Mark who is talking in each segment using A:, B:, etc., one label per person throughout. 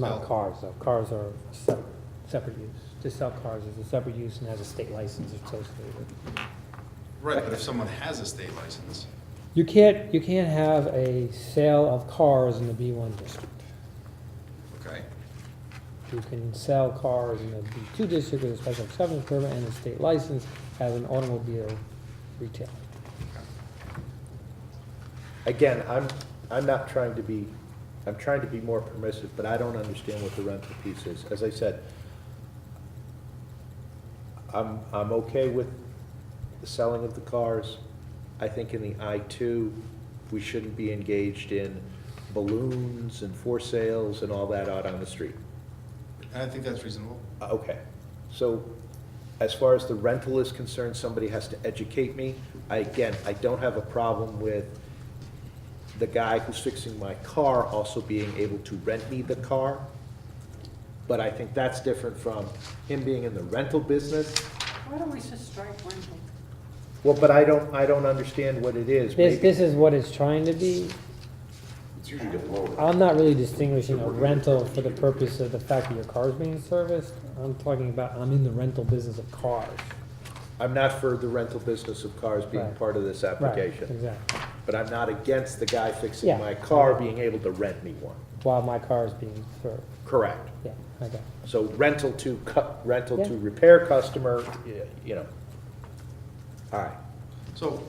A: Not cars, though. Cars are se- separate use. To sell cars is a separate use and has a state license associated with it.
B: Right, but if someone has a state license,
A: You can't, you can't have a sale of cars in the B1 district.
B: okay,
A: You can sell cars in the B2 district with a special exception permit and a state license as an automobile retailer.
C: Again, I'm, I'm not trying to be, I'm trying to be more permissive, but I don't understand what the rental piece is. As I said, I'm, I'm okay with the selling of the cars. I think in the I two, we shouldn't be engaged in balloons and for sales and all that out on the street.
B: and I think that's reasonable.
C: Uh, Okay, so as far as the rental is concerned, somebody has to educate me. I, again, I don't have a problem with the guy who's fixing my car also being able to rent me the car. But I think that's different from him being in the rental business.
D: Why don't we just strike rental?
C: Well, but I don't, I don't understand what it is.
A: This,
C: Maybe-
A: this is what it's trying to be.
E: It's usually get lower.
A: I'm not really distinguishing a rental for the purpose of the fact that your car's being serviced. I'm talking about, I'm in the rental business of cars.
C: I'm not for the rental business of cars being
A: Right.
C: part of this
A: Right,
C: application.
A: exactly.
C: But I'm not against the guy
A: Yeah.
C: fixing my car being able to rent me one.
A: While my car is being served.
C: Correct.
A: Yeah, I got it.
C: So rental to, cu- rental to
A: Yeah.
C: repair customer, y- you know. All right,
B: So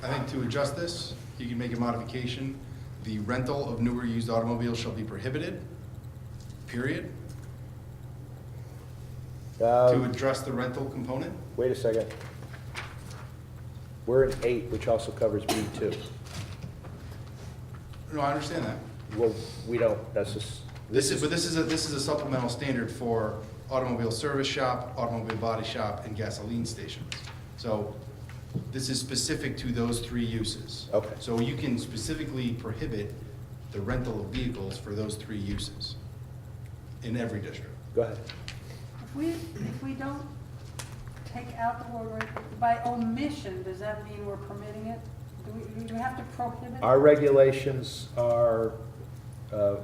B: I think to adjust this, you can make a modification. The rental of newer used automobiles shall be prohibited, period, to
C: Um,
B: address the rental component.
C: wait a second. We're in eight, which also covers B two.
B: No, I understand that.
C: Well, we don't, that's just,
B: This is, but this is a, this is a supplemental standard for automobile service shop, automobile body shop, and gasoline stations. So this is specific to those three uses.
C: Okay.
B: So you can specifically prohibit the rental of vehicles for those three uses in every district.
C: go ahead.
D: If we, if we don't take out the word rental, by omission, does that mean we're permitting it? Do we, do we have to prohibit?
C: Our regulations are uh, uh,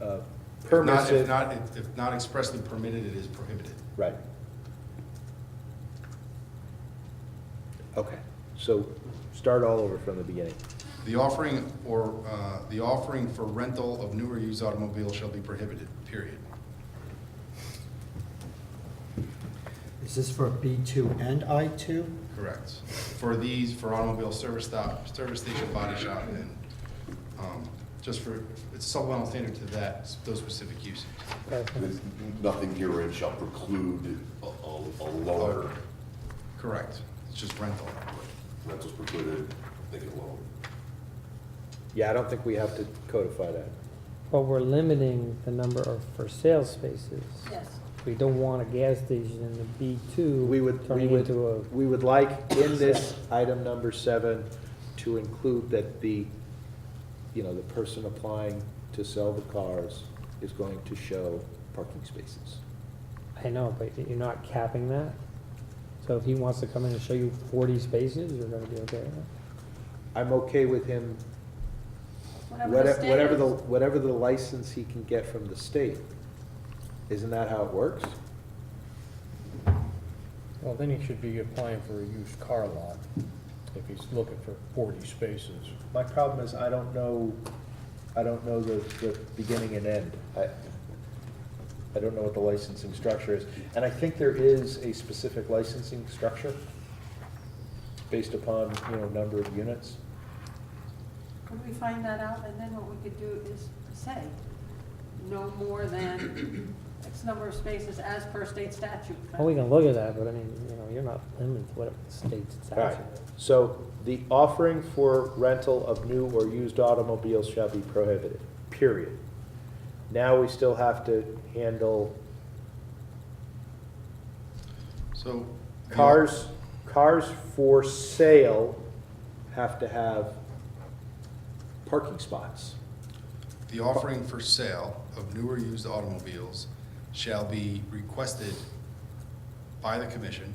B: If not- If
C: permissive,
B: not, if- if not expressly permitted, it is prohibited.
C: right. Okay, so start all over from the beginning.
B: The offering or, uh, the offering for rental of newer used automobiles shall be prohibited, period.
F: Is this for B2 and I2?
B: Correct. For these, for automobile service stop, service station, body shop, and, um, just for, it's supplemental standard to that, those specific uses.
A: Okay.
E: There's Nothing herein shall preclude a, a, a lower,
B: Correct. It's just rental.
E: rentals precluded, they get lower.
C: Yeah, I don't think we have to codify that.
A: But we're limiting the number of for sale spaces.
D: Yes.
A: We don't want a gas station in the B two.
C: We would, we
A: Turning
C: would,
A: into a,
C: we would like in this item number seven to include that the, you know, the person applying to sell the cars is going to show parking spaces.
A: I know, but you're not capping that. So if he wants to come in and show you forty spaces, you're gonna be okay with it.
C: I'm okay with him,
D: the
C: whatever,
D: state
C: whatever the,
D: is.
C: whatever the license he can get from the state. Isn't that how it works?
G: Well, then he should be applying for a used car lot if he's looking for forty spaces.
C: My problem is I don't know, I don't know the, the beginning and end. I, I don't know what the licensing structure is. And I think there is a specific licensing structure based upon, you know, number of units.
D: Could we find that out, and then what we could do is say, no more than X number of spaces as per state statute.
A: Well, we can look at that, but I mean, you know, you're not limited to what it states it's
C: All right,
A: actually.
C: so the offering for rental of new or used automobiles shall be prohibited, period. Now we still have to handle
B: So.
C: cars, cars for sale have to have parking spots.
B: The offering for sale of newer used automobiles shall be requested by the commission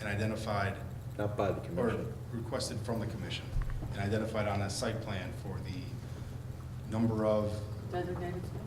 B: and identified,
C: Not by the
B: or
C: commission.
B: requested from the commission and identified on a site plan for the number of
D: Designated space.